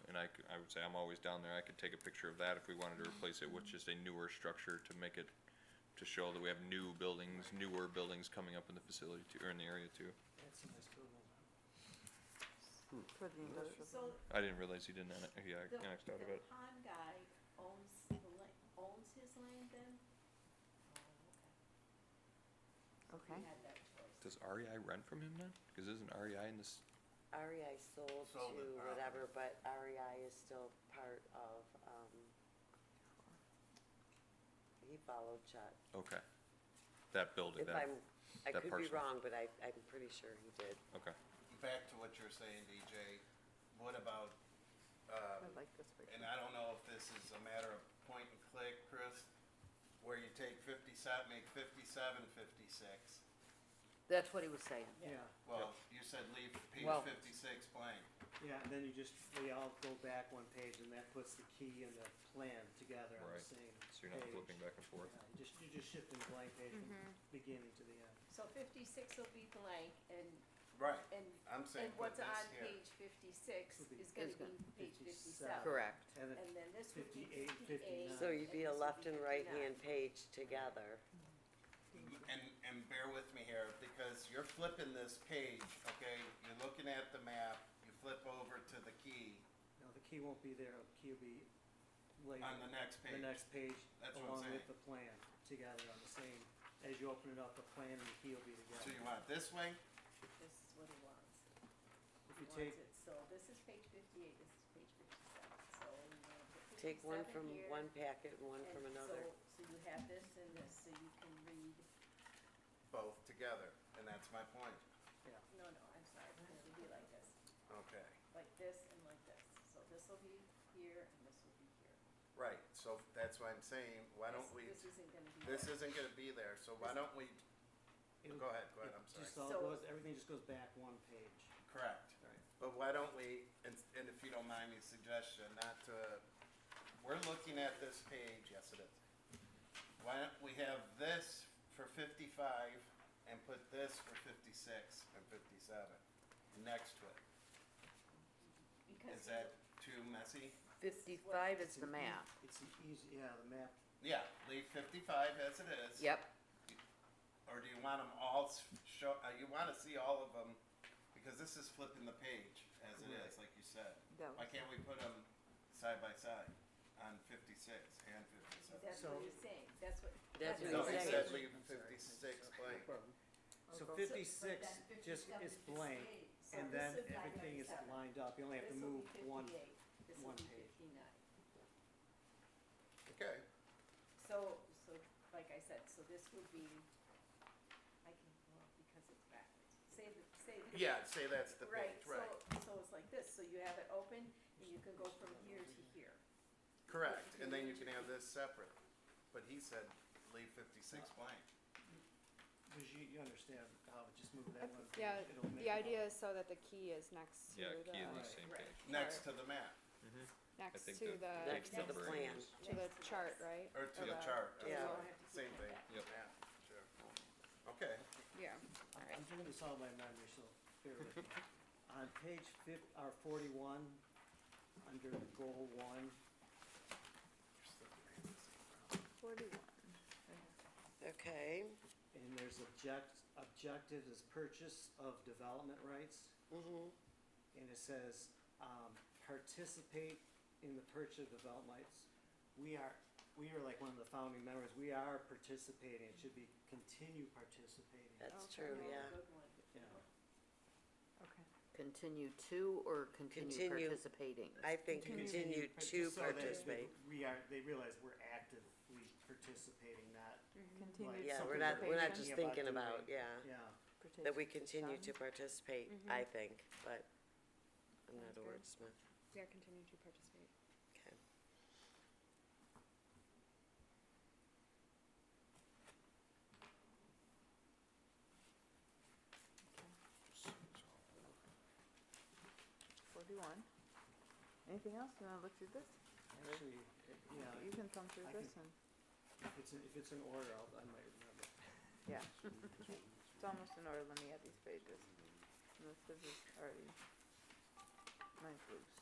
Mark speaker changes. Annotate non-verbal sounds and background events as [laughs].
Speaker 1: would say I'm always down there, I could take a picture of that if we wanted to replace it with just a newer structure to make it, to show that we have new buildings, newer buildings coming up in the facility too, or in the area too.
Speaker 2: That's a nice building.
Speaker 3: For the industrial.
Speaker 4: So
Speaker 1: I didn't realize he didn't, annex- he
Speaker 4: the,
Speaker 1: annexed out of
Speaker 4: the
Speaker 1: it.
Speaker 4: pond guy owns the la- owns his land then? Oh, okay.
Speaker 3: Okay.
Speaker 4: We had that choice.
Speaker 1: Does REI rent from him then? Cause isn't REI in this,
Speaker 5: REI E sold to
Speaker 6: Sold it, uh,
Speaker 5: whatever, but REI is still part of, um, he followed Chuck.
Speaker 1: okay. That building,
Speaker 5: If
Speaker 1: that,
Speaker 5: I'm, I
Speaker 1: that
Speaker 5: could be
Speaker 1: parcel.
Speaker 5: wrong, but I, I'm pretty sure he did.
Speaker 1: okay.
Speaker 6: Back to what you're saying, DJ, what about,
Speaker 3: I
Speaker 6: um,
Speaker 3: like this
Speaker 6: and
Speaker 3: picture.
Speaker 6: I don't know if this is a matter of point and click, Chris, where you take fifty-seven, make fifty-seven, fifty-six.
Speaker 7: That's what he was saying.
Speaker 2: Yeah,
Speaker 6: Well, you said leave page
Speaker 7: Well-
Speaker 6: fifty-six blank.
Speaker 2: yeah, and then you just, they all go back one page and that puts the key and the plan together
Speaker 1: Right.
Speaker 2: on the same page.
Speaker 1: So you're not flipping back and forth.
Speaker 2: Yeah, you just, you're just shifting the blank page from
Speaker 4: Mm-hmm.
Speaker 2: beginning to the end.
Speaker 4: So fifty-six will be blank and,
Speaker 6: Right,
Speaker 4: and,
Speaker 6: I'm
Speaker 4: and
Speaker 6: saying put
Speaker 4: what's on
Speaker 6: this here.
Speaker 4: page fifty-six
Speaker 2: Would be-
Speaker 4: is
Speaker 7: Is
Speaker 4: gonna be
Speaker 7: gonna
Speaker 4: page
Speaker 2: 57.
Speaker 4: fifty-seven.
Speaker 5: Correct.
Speaker 2: And then
Speaker 4: And then this would be
Speaker 2: 58, 59.
Speaker 4: fifty-eight.
Speaker 5: Oh. So you'd be a
Speaker 4: this would
Speaker 5: left and right
Speaker 4: 59.
Speaker 5: hand page together.
Speaker 6: And, and bear with me here, because you're flipping this page, okay, you're looking at the map, you flip over to the key
Speaker 2: No, the key won't be there, the key will be later.
Speaker 6: on the next
Speaker 2: The
Speaker 6: page.
Speaker 2: next page,
Speaker 6: That's what I'm
Speaker 2: along with
Speaker 6: saying.
Speaker 2: the plan, together on the same, as you open it up, the plan and the key will be
Speaker 6: So you
Speaker 2: together.
Speaker 6: want it this way?
Speaker 4: This is what he wants.
Speaker 2: If you
Speaker 4: He wants
Speaker 2: take,
Speaker 4: it, so this is page fifty-eight, this is page fifty-seven, so you wanna put
Speaker 5: Take one from
Speaker 4: fifty-seven here.
Speaker 5: one packet and one
Speaker 4: and
Speaker 5: from another.
Speaker 4: So, so you have this and this, so you can read,
Speaker 6: Both together, and that's my point.
Speaker 4: no, no, I'm sorry, it would be like this,
Speaker 6: Okay.
Speaker 4: like this and like this. So this will be here and this will be here.
Speaker 6: Right, so that's why I'm saying, why don't
Speaker 4: This-
Speaker 6: we,
Speaker 4: This isn't gonna be.
Speaker 6: this
Speaker 4: there.
Speaker 6: isn't gonna be there, so why don't we,
Speaker 2: it'll,
Speaker 6: go ahead, go ahead, I'm
Speaker 2: it just
Speaker 6: sorry.
Speaker 2: all
Speaker 4: So-
Speaker 2: goes, everything just goes back one page.
Speaker 6: Correct. But why don't we, and, and if you don't mind me suggestion, not to, we're looking at this page, yes it is. Why don't we have this for fifty-five and put this for fifty-six and fifty-seven next to it?
Speaker 4: Because
Speaker 6: Is that too messy?
Speaker 7: Fifty-five is
Speaker 2: It's
Speaker 7: the
Speaker 2: an ea-
Speaker 7: map.
Speaker 2: It's an easy, yeah, the map,
Speaker 6: Yeah, leave fifty-five as it is.
Speaker 7: Yep,
Speaker 6: Or do you want them all s- show, uh, you wanna see all of them, because this is flipping the page as it is, like you said.
Speaker 3: That
Speaker 6: Why
Speaker 3: was,
Speaker 6: can't we put them side by side on fifty-six and fifty-seven?
Speaker 4: That's
Speaker 2: So-
Speaker 4: what he's saying, that's what.
Speaker 5: That's what
Speaker 6: No,
Speaker 5: he's
Speaker 6: he
Speaker 5: saying.
Speaker 6: said leave fifty-six blank.
Speaker 2: so
Speaker 3: Okay.
Speaker 2: fifty-six just is blank, and then everything is lined up, you only have to move one.
Speaker 4: This will
Speaker 2: one
Speaker 4: be
Speaker 2: page.
Speaker 4: fifty-nine.
Speaker 6: Okay,
Speaker 4: So, so, like I said, so this would be, I can, well, because it's backwards, say the, say the.
Speaker 6: yeah, say that's the
Speaker 4: Right,
Speaker 6: page,
Speaker 4: so,
Speaker 6: right,
Speaker 4: so it's like this, so you have it open and you can go from here to here.
Speaker 6: correct, and then you can have this separate, but he said leave fifty-six blank.
Speaker 2: Cause you, you understand how, it just move that one page,
Speaker 8: Yeah,
Speaker 2: it'll make.
Speaker 8: The idea is so that the key is next to
Speaker 1: Yeah, key in the
Speaker 8: the,
Speaker 1: same
Speaker 4: Right.
Speaker 1: page.
Speaker 6: Next to the map, I
Speaker 8: next
Speaker 1: think
Speaker 8: to
Speaker 1: the
Speaker 8: the,
Speaker 5: Next
Speaker 1: page
Speaker 5: to the
Speaker 1: numbering
Speaker 5: plan.
Speaker 1: is-
Speaker 8: to the
Speaker 4: Next to
Speaker 8: chart,
Speaker 4: this.
Speaker 8: right?
Speaker 6: or to the
Speaker 8: Okay.
Speaker 6: chart,
Speaker 4: So you
Speaker 5: Yeah.
Speaker 6: that's
Speaker 4: don't have to
Speaker 6: same
Speaker 4: keep
Speaker 6: thing,
Speaker 4: going
Speaker 1: Yep.
Speaker 4: back.
Speaker 6: yeah, sure. Okay,
Speaker 8: Yeah.
Speaker 2: I'm I'm doing this all by memory, so bear with [laughs] me. On page fif, or forty-one, under goal one,
Speaker 5: Okay,
Speaker 2: and there's object, objective is purchase of development rights.
Speaker 5: mm-hmm,
Speaker 2: and it says, um, participate in the purchase of development rights. We are, we are like one of the founding members, we are participating, it should be continue participating,
Speaker 5: that's
Speaker 8: Okay.
Speaker 5: true, yeah.
Speaker 4: Good one.
Speaker 2: you know.
Speaker 3: okay.
Speaker 7: continue to or continue
Speaker 5: Continue.
Speaker 7: participating?
Speaker 5: I think continue
Speaker 2: But
Speaker 5: to
Speaker 2: just so that
Speaker 5: participate.
Speaker 2: We are, they realize we're actively participating, not,
Speaker 3: Continued
Speaker 5: Yeah, we're
Speaker 2: something
Speaker 5: not,
Speaker 2: that
Speaker 5: we're not
Speaker 2: we're
Speaker 5: just
Speaker 2: thinking
Speaker 5: thinking
Speaker 2: about
Speaker 5: about, yeah,
Speaker 2: yeah,
Speaker 5: that we continue to
Speaker 3: participation.
Speaker 5: participate,
Speaker 2: Mm-hmm.
Speaker 5: I think, but I'm
Speaker 8: Sounds
Speaker 5: not a
Speaker 8: good.
Speaker 5: wordsmith.
Speaker 8: Yeah, continue to participate.
Speaker 5: Okay.
Speaker 3: Forty-one. Anything else? You wanna look through this?
Speaker 2: actually, it-
Speaker 3: You
Speaker 2: yeah,
Speaker 3: can thumb through
Speaker 2: I
Speaker 3: this
Speaker 2: can-
Speaker 3: and,
Speaker 2: if it's, in- if it's in order, I'll, I might remember.
Speaker 3: yeah. It's almost in order. Let me add these pages. And this is just already. Mine's loose.